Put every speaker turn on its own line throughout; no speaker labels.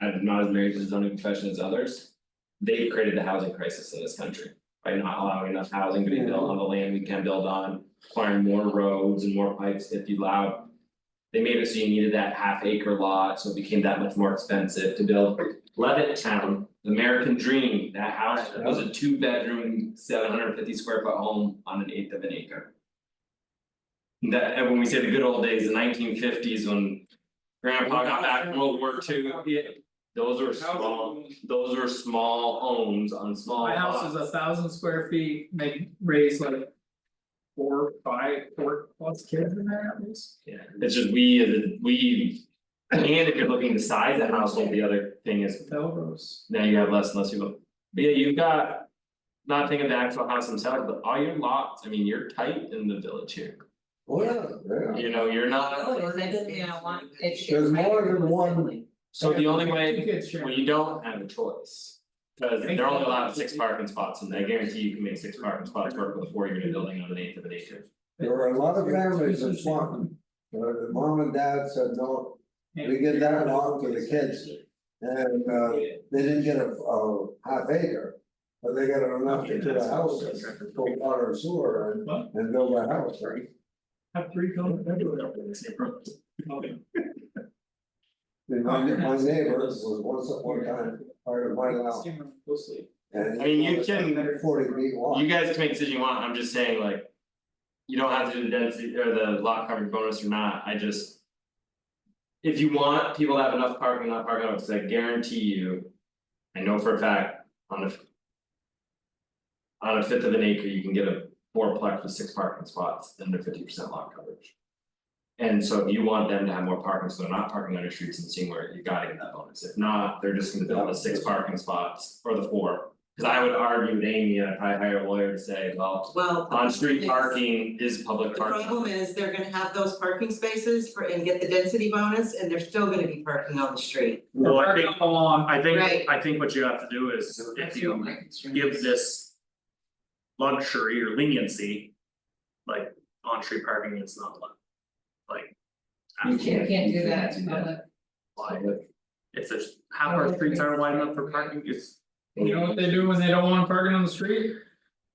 I'm not as married to the zoning profession as others. They created the housing crisis in this country by not allowing enough housing to be built on the land we can build on, requiring more roads and more pipes if you allow. They made it so you needed that half acre lot, so it became that much more expensive to build. Levitt Town, the American Dream, that house that was a two bedroom, seven hundred fifty square foot home on an eighth of an acre. That, and when we say the good old days, the nineteen fifties when grandpa got back from World War Two, yeah, those were small, those were small homes on small
My house
lots.
is a thousand square feet, may raise like. Four, five, four plus kids in there at least.
Yeah, it's just we, as a- we, and if you're looking to size the household, the other thing is
Melrose.
now you have less and less people. But yeah, you've got. Not thinking of the actual house themselves, but all your lots, I mean, you're tight in the village here,
Oh, yeah, yeah.
you know, you're not,
Oh, it's, you know, one, it's.
There's more than one.
so the only
Two
way,
kids sharing.
when you don't have a choice. Cause they're only allowed six parking spots and I guarantee you can make six parking spots work with a four unit building on an eighth of an acre.
There were a lot of families in Swanton, but the mom and dad said, no, we give that along to the kids. And uh they didn't get a a half acre, but they got enough to put a house in, to put water and sewer and
What?
and build a house, right?
Have three children everywhere.
And My my neighbor was once at one time part of my house
Same room, Closely.
and.
I mean, you can-
Forty feet wide.
You guys can make the decision you want, I'm just saying like. You don't have to do the density or the lot coverage bonus or not, I just. If you want people to have enough parking, not parking, because I guarantee you. I know for a fact on a. On a fifth of an acre, you can get a fourplex with six parking spots under fifty percent lot coverage. And so if you want them to have more parking, so they're not parking on your streets and seeing where you gotta get that bonus, if not, they're just gonna build the six parking spots or the four. Cause I would argue with Amy, I'd probably hire a lawyer to say, well,
Well.
on street
yes.
parking is
The
public parking.
problem is they're gonna have those parking spaces for and get the density bonus and they're still gonna be parking on the street.
Well, I think,
Park all along.
I
Right.
think, I think what you have to do is if
That's
you
what my concern
give
is.
this. Luxury or leniency. Like on street parking is not allowed. Like.
Mm-hmm.
um,
You
absolutely,
can't-
Can't do
you
that,
can't do
public.
like, if there's half our streets aren't wide enough for parking, it's.
You know what they do when they don't want parking on the street?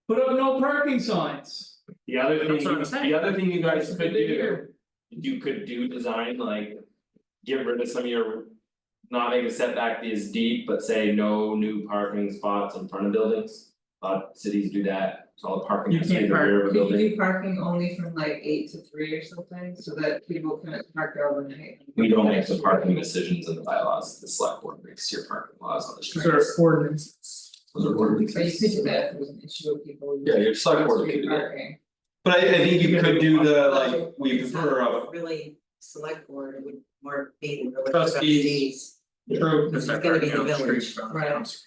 Put up no parking signs.
The other thing,
That's what I'm saying.
the other thing you guys could
They
do, you could do design like. Get rid of some of your. Not make a setback be as deep, but say no new parking spots in front of buildings. A lot of cities do that, so all the parking
You
has to be
can't
the rear of a
Could you
building.
do parking only from like eight to three or something, so that people can park there overnight?
We don't make the parking decisions in the bylaws, the select board makes your parking laws on the streets.
Those are ordinances.
Those are
But you
ordinances.
could do that, if it was an issue with people.
Yeah, your select board could
Street
do that.
parking.
But I I think you could do the like, we
It's
prefer a
uh,
not Really, select board would more be the village
Trustees.
trustees.
True.
It's not
It's gonna be
parking on
the
the street.
Right.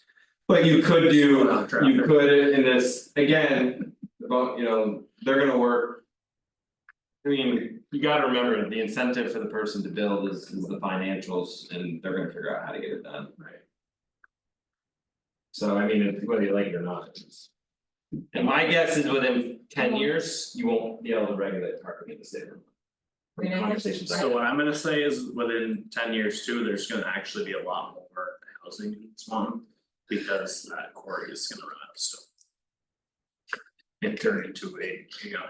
But you could do,
Without traffic.
you could in this, again, about, you know, they're gonna work. I mean, you gotta remember, the incentive for the person to build is is the financials and they're gonna figure out how to get it done. Right. So I mean, it's whether you like it or not, it's just- And my guess is within ten years, you won't be able to regulate parking in the state.
We don't have to-
Conversations I
So what I'm gonna say is within ten years too, there's gonna actually be a lot more housing in Swan. Because that quarry is gonna run out of stone. And turn into a, you know,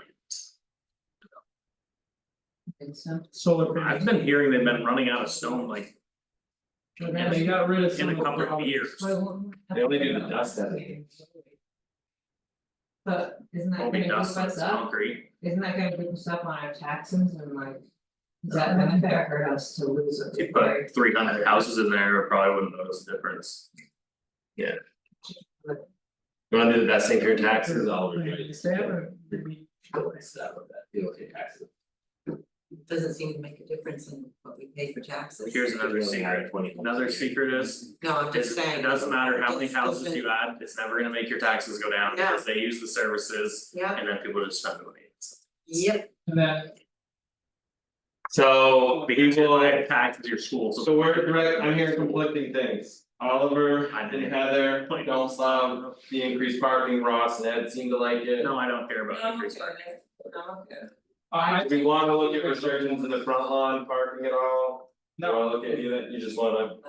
think so.
Solar panels.
I've been hearing they've been running out of stone like
And they got rid of some
in
of
a
the
couple of
problems.
years.
Why won't we have
They only do the
parking
dust,
on
I
the
think.
street? But isn't
Won't
that gonna
be
give
dust,
us
it's
up,
concrete.
isn't that gonna give us up on our taxes and like? Is that benefit or hurt us to lose it?
If you put three hundred houses in there, I probably wouldn't notice the difference.
You wanna do the best thing for your taxes, I'll review
Like,
it.
is that or-
Stuff with that, deal with your taxes.
Doesn't seem to make a difference in what we pay for taxes.
Here's another secret, another secret is,
No, I'm just
is
saying.
it doesn't matter how many
Just
houses
doesn't-
you add, it's never gonna make your taxes go down
No.
because they use the services.
Yeah,
And then people just spend the money.
yep,
And then
So we
Because you
will,
like taxes your school, so.
so we're direct, I'm hearing conflicting things. Oliver
I
and
didn't-
Heather don't allow the increased parking, Ross and Ed seem to like it.
No, I don't care about
No,
increased parking.
okay.
I
Do we wanna look at resurgence in the front lawn parking at all? Do you
No.
wanna look at, you, you just wanna